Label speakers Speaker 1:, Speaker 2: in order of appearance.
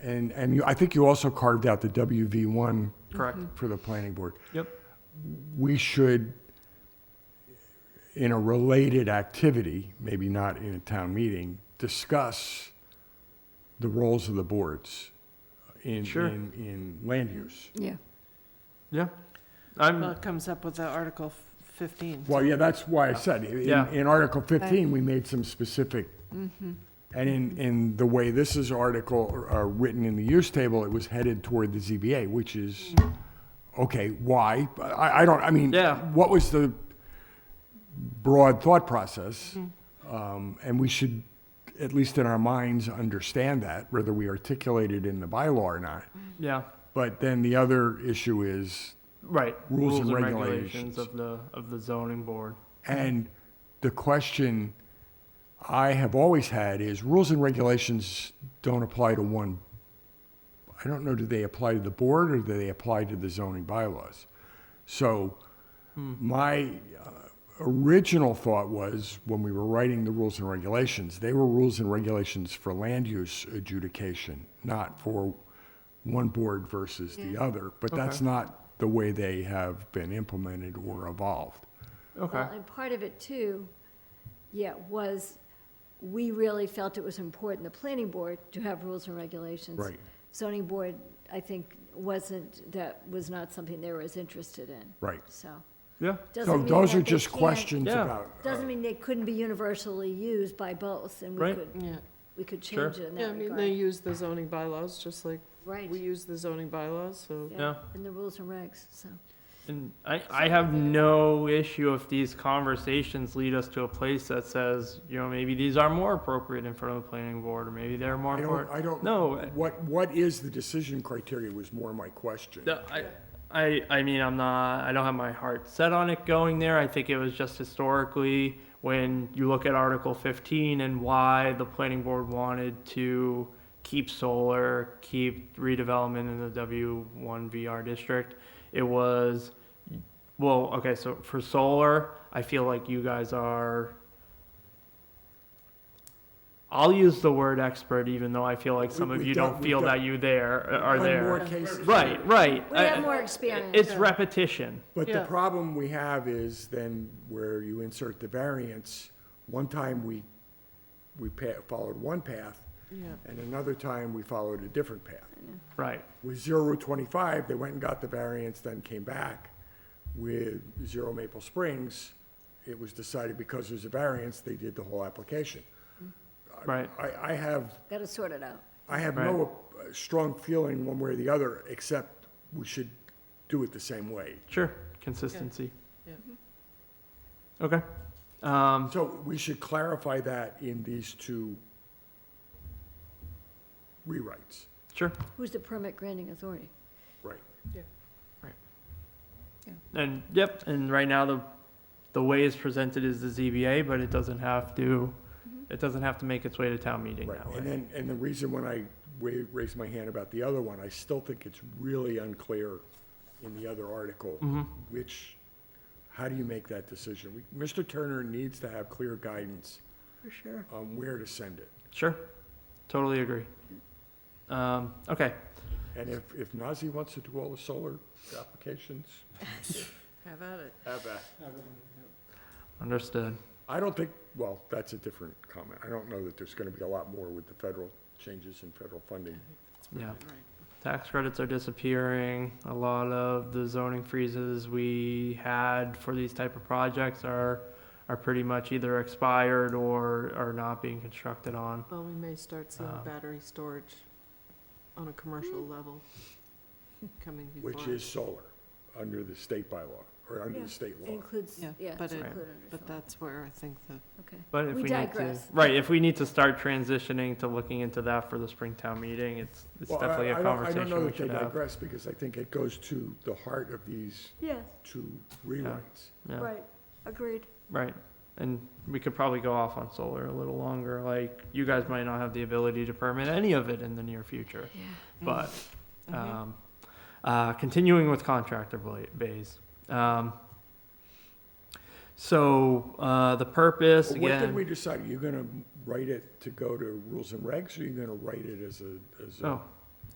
Speaker 1: And, and you- I think you also carved out the WV1
Speaker 2: Correct.
Speaker 1: for the planning board.
Speaker 2: Yep.
Speaker 1: We should, in a related activity, maybe not in a town meeting, discuss the roles of the boards in,
Speaker 2: Sure.
Speaker 1: in, in land use.
Speaker 3: Yeah.
Speaker 2: Mm-hmm. Yeah.
Speaker 4: Well,
Speaker 2: I'm,
Speaker 4: it comes up with the Article 15.
Speaker 1: Well, yeah, that's why I said, in,
Speaker 2: Yeah.
Speaker 1: in Article 15, we made some specific, and in, in the way this is article, uh, written in the use table, it was headed toward the ZBA, which is, okay, why? I, I don't, I mean,
Speaker 2: Yeah.
Speaker 1: what was the broad thought process? Um, and we should, at least in our minds, understand that, whether we articulate it in the bylaw or not.
Speaker 2: yeah,
Speaker 1: But then the other issue is,
Speaker 2: right.
Speaker 1: Rules and regulations.
Speaker 2: of the, of the zoning board.
Speaker 1: And the question I have always had is rules and regulations don't apply to one. I don't know, do they apply to the board or do they apply to the zoning bylaws? So my uh, original thought was when we were writing the rules and regulations, they were rules and regulations for land use adjudication, not for one board versus the other. But that's not the way they have been implemented or evolved.
Speaker 2: Okay.
Speaker 5: Well, and part of it too, yeah, was we really felt it was important, the planning board, to have rules and regulations.
Speaker 1: Right.
Speaker 5: Zoning board, I think, wasn't, that was not something they were as interested in,
Speaker 1: Right.
Speaker 5: so.
Speaker 2: Yeah.
Speaker 5: doesn't
Speaker 1: So
Speaker 5: mean
Speaker 1: those
Speaker 5: that
Speaker 1: are
Speaker 5: they
Speaker 1: just
Speaker 5: can't-
Speaker 1: questions
Speaker 2: Yeah.
Speaker 1: about,
Speaker 5: Doesn't mean they couldn't be universally used by both, and we
Speaker 2: Right.
Speaker 5: could,
Speaker 4: Yeah,
Speaker 5: we could
Speaker 2: Sure.
Speaker 5: change it in
Speaker 4: yeah, I
Speaker 5: that
Speaker 4: mean, they
Speaker 5: regard.
Speaker 4: use the zoning bylaws, just like
Speaker 5: Right,
Speaker 4: we use the zoning bylaws, so.
Speaker 2: Yeah.
Speaker 5: and the rules and regs, so.
Speaker 2: And I, I have no issue if these conversations lead us to a place that says, you know, maybe these are more appropriate in front of the planning board, or maybe they're more
Speaker 1: I don't,
Speaker 2: important.
Speaker 1: I don't.
Speaker 2: No.
Speaker 1: What, what is the decision criteria was more my question.
Speaker 2: No, I, I, I mean, I'm not, I don't have my heart set on it going there. I think it was just historically, when you look at Article 15 and why the planning board wanted to keep solar, keep redevelopment in the W1VR district, it was, well, okay, so for solar, I feel like you guys are, I'll use the word expert, even though I feel like some
Speaker 1: We-
Speaker 2: of
Speaker 1: we
Speaker 2: you
Speaker 1: don't-
Speaker 2: don't
Speaker 1: we
Speaker 2: feel
Speaker 1: don't-
Speaker 2: that you there, uh, are
Speaker 1: One
Speaker 2: there.
Speaker 1: more case-
Speaker 2: Right, right.
Speaker 5: We have
Speaker 2: I-
Speaker 5: more experience.
Speaker 2: It's repetition.
Speaker 1: But the
Speaker 4: Yeah.
Speaker 1: problem we have is then where you insert the variance, one time we, we pa- followed one path,
Speaker 4: Yeah.
Speaker 1: and another time we followed a different path.
Speaker 2: Right,
Speaker 1: With zero Route twenty-five, they went and got the variance, then came back. With zero Maple Springs, it was decided because there's a variance, they did the whole application.
Speaker 2: right.
Speaker 1: I, I have
Speaker 5: Got to sort it out.
Speaker 1: I have no uh, strong feeling one way or the other, except we should do it the same way.
Speaker 2: Sure. Consistency. Mm-hmm.
Speaker 4: Yeah.
Speaker 2: Okay. Um,
Speaker 1: So we should clarify that in these two rewrites,
Speaker 2: sure.
Speaker 5: Who's the permit granting authority?
Speaker 1: right?
Speaker 2: And yep. And right now the the way it's presented is the ZBA, but it doesn't have to.
Speaker 5: Mm-hmm.
Speaker 2: It doesn't have to make its way to town meeting
Speaker 1: Right,
Speaker 2: that way.
Speaker 1: and then, and the reason when I wa- raised my hand about the other one, I still think it's really unclear in the other article,
Speaker 2: Mm-hmm.
Speaker 1: which, how do you make that decision? We- Mr. Turner needs to have clear guidance
Speaker 5: For sure.
Speaker 1: on where to send it.
Speaker 2: Sure. Totally agree. Um, okay.
Speaker 1: And if, if Nazi wants to do all the solar applications,
Speaker 4: How about it?
Speaker 1: have at it.
Speaker 2: Understood.
Speaker 1: I don't think, well, that's a different comment. I don't know that there's going to be a lot more with the federal changes in federal funding.
Speaker 2: Yeah. Tax credits are disappearing. A lot of the zoning freezes we had for these type of projects are, are pretty much either expired or are not being constructed on.
Speaker 4: Well, we may start seeing
Speaker 2: Um,
Speaker 4: battery storage on a commercial level coming before.
Speaker 1: Which is solar, under the state bylaw, or under
Speaker 5: Yeah.
Speaker 1: the state
Speaker 5: It
Speaker 1: law.
Speaker 5: includes,
Speaker 4: Yeah,
Speaker 5: yeah,
Speaker 4: but
Speaker 5: it's
Speaker 4: it-
Speaker 5: included under
Speaker 4: But
Speaker 5: solar.
Speaker 4: that's where I think the,
Speaker 5: Okay.
Speaker 2: But if
Speaker 5: We
Speaker 2: we need to,
Speaker 5: digress.
Speaker 2: right, if we need to start transitioning to looking into that for the Springtown meeting, it's, it's
Speaker 1: Well, I-
Speaker 2: definitely
Speaker 1: I
Speaker 2: a
Speaker 1: don't- I don't
Speaker 2: conversation
Speaker 1: know
Speaker 2: we
Speaker 1: that they
Speaker 2: should have.
Speaker 1: digress, because I think it goes to the heart of these
Speaker 5: Yes,
Speaker 1: two rewrites.
Speaker 2: Yeah.
Speaker 5: right, agreed.
Speaker 2: Right. And we could probably go off on solar a little longer. Like, you guys might not have the ability to permit any of it in the near future.
Speaker 5: Yeah.
Speaker 2: But,
Speaker 4: Mm-hmm.
Speaker 2: um, uh, continuing with contractor bla- bays. Um, so, uh, the purpose,
Speaker 1: Well, What did we
Speaker 2: again,
Speaker 1: decide? You're going to write it to go to rules and regs, or you're going to write it as a, as a
Speaker 2: oh,